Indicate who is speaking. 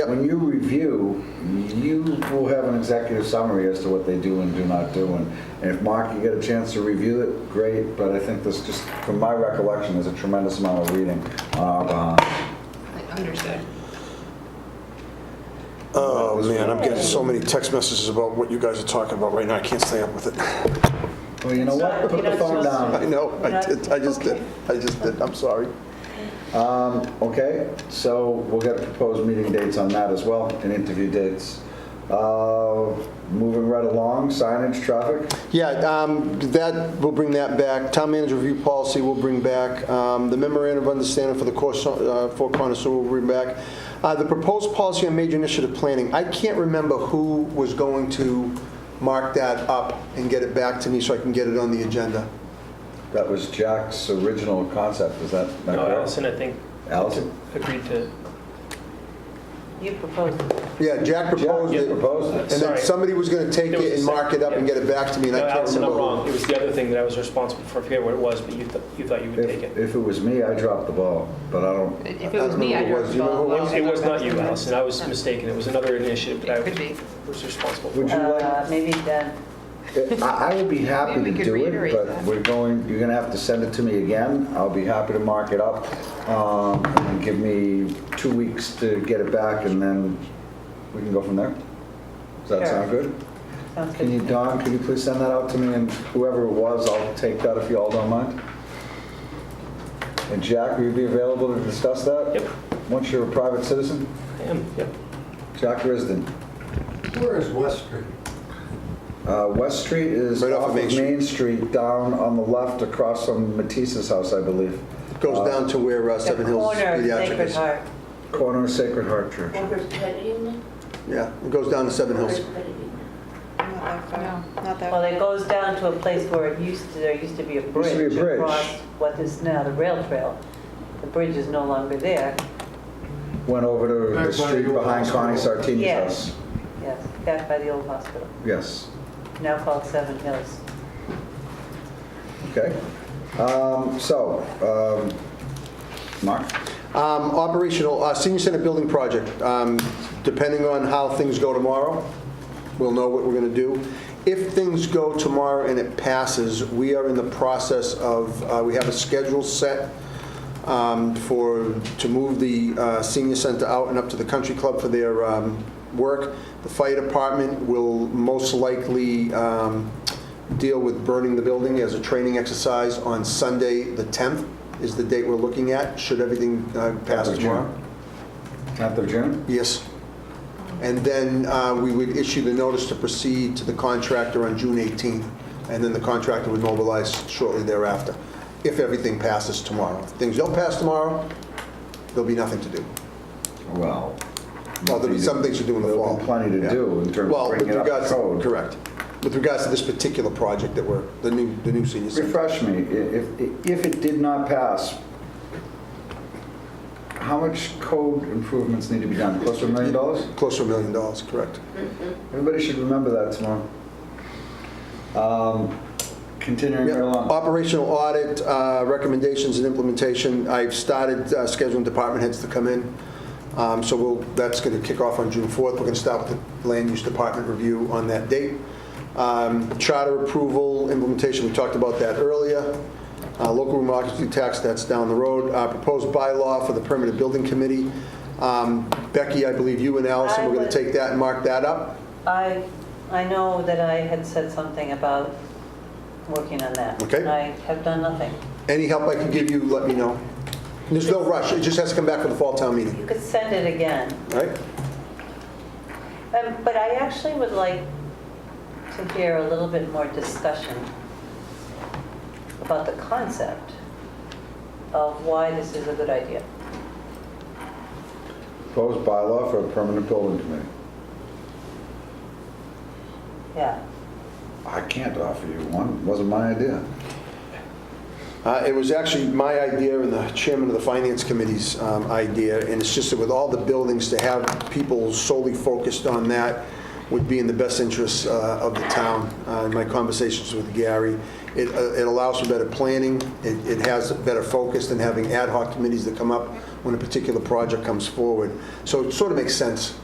Speaker 1: When you review, you will have an executive summary as to what they do and do not do. And and if, Mark, you get a chance to review it, great, but I think this, just from my recollection, there's a tremendous amount of reading uh, on our behalf.
Speaker 2: Understood.
Speaker 3: Oh, man, I'm getting so many text messages about what you guys are talking about right now. I can't stay up with it.
Speaker 1: Well, you know what? Put the phone down.
Speaker 3: I know, I did, I just did, I just did, I'm sorry.
Speaker 1: Okay, so we'll get proposed meeting dates on that as well, and interview dates. Uh, Moving right along, signage, traffic.
Speaker 3: Yeah, um, that, we'll bring that back. Town manager review policy, we'll bring back. Um, The memorandum of understanding for the course, uh, Four Corners, so we'll bring back. Uh, The proposed policy on major initiative planning, I can't remember who was going to mark that up and get it back to me so I can get it on the agenda.
Speaker 1: That was Jack's original concept, is that not
Speaker 4: No,
Speaker 1: correct?
Speaker 4: Allison, I think,
Speaker 1: Allison?
Speaker 4: agreed to,
Speaker 2: You proposed it.
Speaker 3: Yeah, Jack proposed
Speaker 1: Jack
Speaker 3: it.
Speaker 1: proposed it.
Speaker 3: And then
Speaker 4: Sorry.
Speaker 3: somebody was going to take
Speaker 4: There was
Speaker 3: it
Speaker 4: a
Speaker 3: and mark it
Speaker 4: second,
Speaker 3: up and
Speaker 4: yeah.
Speaker 3: get it back to me, and
Speaker 4: no,
Speaker 3: I can't
Speaker 4: Allison, I'm
Speaker 3: remember.
Speaker 4: wrong. It
Speaker 3: who.
Speaker 4: was the other thing that I was responsible for, I forget what it was, but you, th- you thought you would take
Speaker 1: If
Speaker 4: it.
Speaker 1: if it was me, I dropped the ball, but I don't,
Speaker 2: If it was me,
Speaker 3: I
Speaker 2: I
Speaker 3: don't remember who it was.
Speaker 2: drove
Speaker 3: Do you remember who it was?
Speaker 4: It was not you, Allison, I was mistaken, it was another initiative that I
Speaker 2: It could be.
Speaker 4: was responsible for.
Speaker 1: would you like?
Speaker 5: Uh, Maybe then,
Speaker 1: I I would be happy to
Speaker 2: Maybe we could
Speaker 1: do it,
Speaker 2: reiterate
Speaker 1: but
Speaker 2: that.
Speaker 1: we're going, you're gonna have to send it to me again. I'll be happy to mark it up. um, and Give me two weeks to get it back and then we can go from there. Does that
Speaker 5: Sure.
Speaker 1: sound good?
Speaker 5: sounds
Speaker 1: Can you,
Speaker 5: good.
Speaker 1: Don, could you please send that out to me and whoever it was, I'll take that if you all don't mind? And Jack, will you be available to discuss that?
Speaker 4: Yep.
Speaker 1: Once you're a private citizen?
Speaker 4: I am, yep.
Speaker 1: Jack Risden.
Speaker 6: Where is West Street?
Speaker 1: Uh, West Street is
Speaker 3: Right
Speaker 1: off of Main Street, down on the left across from Matisse's house, I believe.
Speaker 3: Goes down to where uh,
Speaker 5: The
Speaker 3: Seven Hills
Speaker 5: corner of
Speaker 3: Pediatric
Speaker 5: Sacred
Speaker 3: is.
Speaker 5: Heart.
Speaker 1: Corner of Sacred Heart Church.
Speaker 3: Yeah, it goes down to Seven Hills.
Speaker 2: No, not that.
Speaker 5: Well, it goes down to a place where it used to, there used to be a
Speaker 1: be a
Speaker 5: bridge
Speaker 1: bridge.
Speaker 5: across what is now the rail trail. The bridge is no longer there.
Speaker 1: Went over to the
Speaker 6: Back by
Speaker 1: street
Speaker 6: the old
Speaker 1: behind Connie
Speaker 6: hospital.
Speaker 1: Sartini's
Speaker 5: Yes.
Speaker 1: house.
Speaker 5: Yes, back by the old hospital,
Speaker 1: Yes,
Speaker 5: now called Seven Hills.
Speaker 1: okay. Um, So, um, Mark?
Speaker 3: Um, Operational, uh, senior center building project, Um, depending on how things go tomorrow, we'll know what we're going to do. If things go tomorrow and it passes, we are in the process of, uh, we have a schedule set um, for, to move the uh, senior center out and up to the country club for their um, work. The fire department will most likely um, deal with burning the building as a training exercise on Sunday, the 10th is the date we're looking at, should everything uh, pass
Speaker 1: Tenth of
Speaker 3: tomorrow.
Speaker 1: June. 10th of June?
Speaker 3: Yes. And then uh, we would issue the notice to proceed to the contractor on June 18th, and then the contractor would mobilize shortly thereafter, if everything passes tomorrow. If things don't pass tomorrow, there'll be nothing to do.
Speaker 1: Well.
Speaker 3: Well, there'll be some things to do in the
Speaker 1: There'll
Speaker 3: fall.
Speaker 1: be plenty to
Speaker 3: Yeah.
Speaker 1: do in terms of
Speaker 3: Well, with
Speaker 1: bringing it up
Speaker 3: regards,
Speaker 1: to code.
Speaker 3: correct. With regards to this particular project that we're, the new, the new senior center.
Speaker 1: Refresh me, i- if, if it did not pass, how much code improvements need to be done? Close to a million dollars?
Speaker 3: Close to a million dollars, correct.
Speaker 1: Everybody should remember that tomorrow. Um, Continuing
Speaker 3: Yep.
Speaker 1: right along.
Speaker 3: Operational audit, uh, recommendations and implementation. I've started uh, scheduling department heads to come in. Um, So we'll, that's going to kick off on June 4th. We're going to start with the land use department review on that date. Um, Charter approval, implementation, we talked about that earlier. Uh, Local room occupancy tax, that's down the road. Uh, Proposed bylaw for the permanent building committee. Um, Becky, I believe you and Allison,
Speaker 5: I
Speaker 3: we're going
Speaker 5: would-
Speaker 3: to take that and mark that up.
Speaker 5: I, I know that I had said something about working on that.
Speaker 3: Okay.
Speaker 5: I have done nothing.
Speaker 3: Any help I can give you, let me know. There's no rush, it just has to come back for the fall town meeting.
Speaker 5: You could send it again.
Speaker 3: Right?
Speaker 5: Um, But I actually would like to hear a little bit more discussion about the concept of why this is a good idea.
Speaker 1: Proposed bylaw for a permanent building committee.
Speaker 5: Yeah.
Speaker 1: I can't offer you one, wasn't my idea.
Speaker 3: Uh, It was actually my idea and the chairman of the finance committee's um, idea, and it's just that with all the buildings, to have people solely focused on that would be in the best interests uh, of the town. Uh, In my conversations with Gary, it uh, it allows for better planning, it it has better focus than having ad hoc committees that come up when a particular project comes forward. So it sort of makes sense